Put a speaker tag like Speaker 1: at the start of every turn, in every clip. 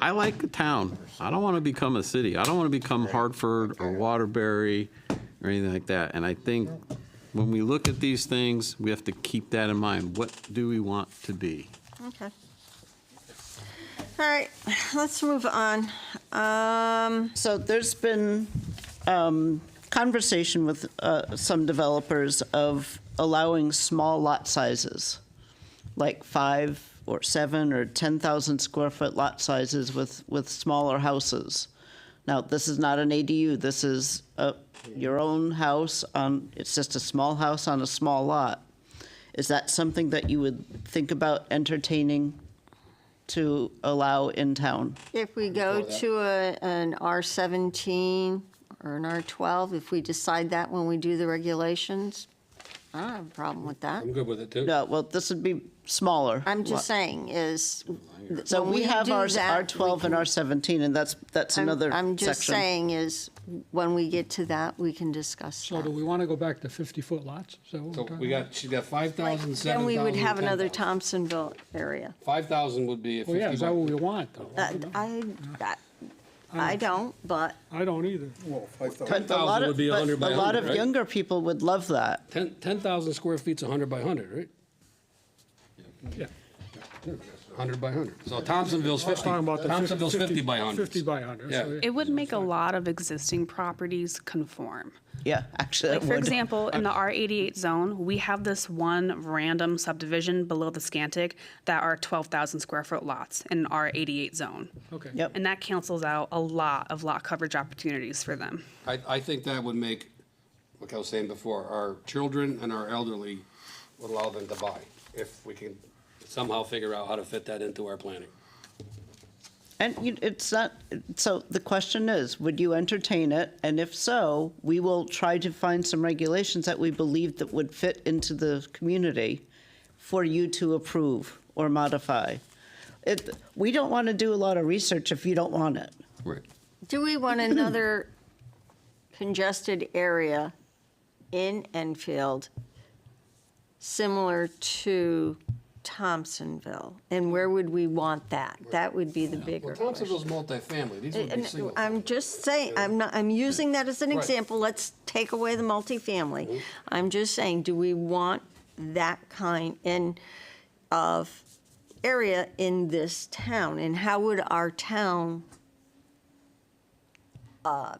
Speaker 1: I like the town. I don't want to become a city. I don't want to become Hartford or Waterbury or anything like that. And I think when we look at these things, we have to keep that in mind. What do we want to be?
Speaker 2: Okay. All right, let's move on. Um,
Speaker 3: So there's been um, conversation with uh, some developers of allowing small lot sizes, like five or seven or 10,000 square foot lot sizes with, with smaller houses. Now, this is not an ADU, this is a- your own house on, it's just a small house on a small lot. Is that something that you would think about entertaining to allow in town?
Speaker 2: If we go to a- an R17 or an R12, if we decide that when we do the regulations, I don't have a problem with that.
Speaker 4: I'm good with it too.
Speaker 3: No, well, this would be smaller.
Speaker 2: I'm just
Speaker 3: lot.
Speaker 2: saying is.
Speaker 3: So
Speaker 2: when
Speaker 3: we have
Speaker 2: do
Speaker 3: our
Speaker 2: that,
Speaker 3: our 12 and our 17, and that's, that's
Speaker 2: I'm-
Speaker 3: another
Speaker 2: I'm just
Speaker 3: section.
Speaker 2: saying is, when we get to that, we can discuss
Speaker 5: So do
Speaker 2: that.
Speaker 5: we want to go back to 50-foot lots? Is that what
Speaker 4: So
Speaker 5: we're talking
Speaker 4: we got, she's got five thousand, seven
Speaker 2: Then we
Speaker 4: thousand,
Speaker 2: would
Speaker 4: ten
Speaker 2: have another
Speaker 4: thousand.
Speaker 2: Thompsonville area.
Speaker 4: Five thousand would be a
Speaker 5: Well, Oh, yeah, is
Speaker 4: fifty
Speaker 5: that what
Speaker 4: by,
Speaker 5: we want, though? I
Speaker 2: That-
Speaker 5: don't know.
Speaker 2: I, that- I don't, but
Speaker 5: I don't either.
Speaker 3: But a lot
Speaker 4: 10,000
Speaker 3: of-
Speaker 4: would be
Speaker 3: but
Speaker 4: 100 by
Speaker 3: A lot
Speaker 4: 100,
Speaker 3: of
Speaker 4: right?
Speaker 3: younger people would love that.
Speaker 4: ten, ten thousand square feet's hundred by hundred, right?
Speaker 5: Yeah.
Speaker 4: Hundred by hundred. So Thompsonville's fifty,
Speaker 5: Talking about the
Speaker 4: Thompsonville's fifty by hundred.
Speaker 5: 50 by 100.
Speaker 4: Yeah.
Speaker 5: so
Speaker 6: It would make a lot of existing properties conform.
Speaker 3: Yeah, actually, it
Speaker 6: Like,
Speaker 3: would.
Speaker 6: for example, in the R88 zone, we have this one random subdivision below the Scantic that are 12,000 square foot lots in an R88 zone.
Speaker 5: Okay.
Speaker 3: Yep.
Speaker 6: And that cancels out a lot of lot coverage opportunities for them.
Speaker 4: I, I think that would make, like I was saying before, our children and our elderly would allow them to buy, if we can somehow figure out how to fit that into our planning.
Speaker 3: And you- it's not, so the question is, would you entertain it? And if so, we will try to find some regulations that we believe that would fit into the community for you to approve or modify. It, we don't want to do a lot of research if you don't want it.
Speaker 1: Right.
Speaker 2: do we want another congested area in Enfield similar to Thompsonville? And where would we want that? That would be the bigger
Speaker 4: Well,
Speaker 2: question.
Speaker 4: Thompsonville's multifamily, these would be
Speaker 2: And uh,
Speaker 4: single.
Speaker 2: I'm just saying, I'm not, I'm using that as an
Speaker 4: Right. Mm-hmm.
Speaker 2: example. Let's take away the multifamily. I'm just saying, do we want that kind in, of area in this town? And how would our town uh,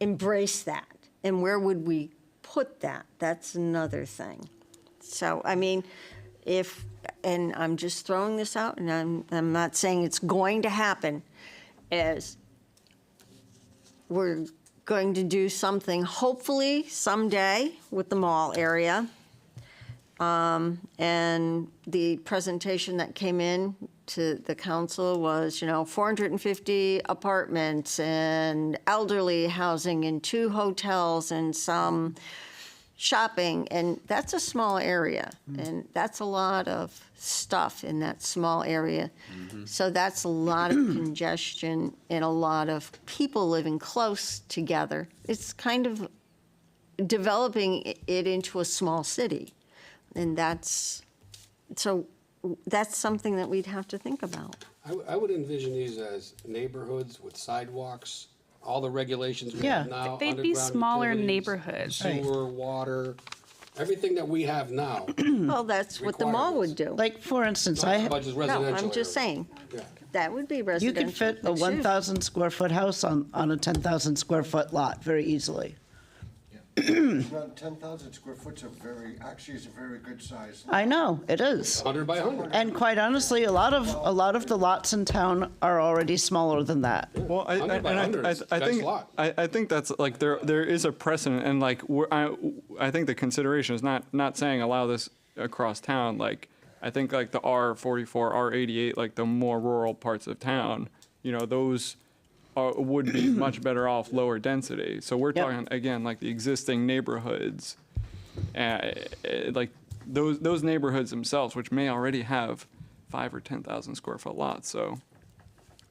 Speaker 2: embrace that? And where would we put that? That's another thing. So, I mean, if, and I'm just throwing this out, and I'm, I'm not saying it's going to happen, is we're going to do something, hopefully someday, with the mall area. Um, And the presentation that came in to the council was, you know, 450 apartments and elderly housing and two hotels and some shopping, and that's a small area, and that's a lot of stuff in that small area. So that's a lot of congestion and a lot of people living close together. It's kind of developing i- it into a small city, and that's, so that's something that we'd have to think about.
Speaker 4: I, w- I would envision these as neighborhoods with sidewalks, all the regulations we
Speaker 3: Yeah.
Speaker 4: have now.
Speaker 6: They'd be
Speaker 4: underground
Speaker 6: smaller
Speaker 4: utilities,
Speaker 6: neighborhoods.
Speaker 3: Right.
Speaker 4: Sewer, water, everything that we have now.
Speaker 2: Well, that's what the mall would do.
Speaker 3: Like, for instance, I.
Speaker 4: Not just residential
Speaker 2: No, I'm
Speaker 4: areas.
Speaker 2: just saying,
Speaker 4: Yeah.
Speaker 2: that would be
Speaker 3: You
Speaker 2: residential.
Speaker 3: could fit a
Speaker 2: Excuse me.
Speaker 3: 1,000 square foot house on, on a 10,000 square foot lot very easily.
Speaker 7: Around ten thousand square foot's a very, actually is a very good size.
Speaker 3: I know, it is.
Speaker 4: Hundred by hundred.
Speaker 3: And quite honestly, a lot of, a lot of the lots in town are already smaller than that.
Speaker 8: Well, I, I,
Speaker 4: Hundred
Speaker 8: and
Speaker 4: by hundred
Speaker 8: I, I,
Speaker 4: is
Speaker 8: I
Speaker 4: that's a
Speaker 8: think
Speaker 4: lot.
Speaker 8: I, I think that's like there there is a precedent, and like we're, I I think the consideration is not not saying allow this across town. Like I think like the R forty four, R eighty eight, like the more rural parts of town, you know, those are, would be much better off lower density. So we're
Speaker 3: Yep.
Speaker 8: talking again like the existing neighborhoods, uh, uh, like those those neighborhoods themselves, which may already have five or ten thousand square foot lots. So.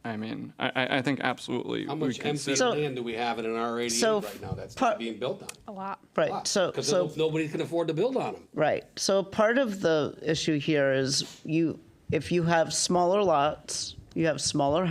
Speaker 8: I mean, I, I- I think absolutely.
Speaker 4: How
Speaker 8: we
Speaker 4: much empty
Speaker 8: consider-
Speaker 3: So-
Speaker 4: land do we have in an R eighty-eight
Speaker 3: so
Speaker 4: right now that's
Speaker 3: par-
Speaker 4: not being built on?
Speaker 6: A lot.
Speaker 3: Right, so,
Speaker 4: Because
Speaker 3: so,
Speaker 4: nobody can afford to build on them.
Speaker 3: right. So part of the issue here is you, if you have smaller lots, you have smaller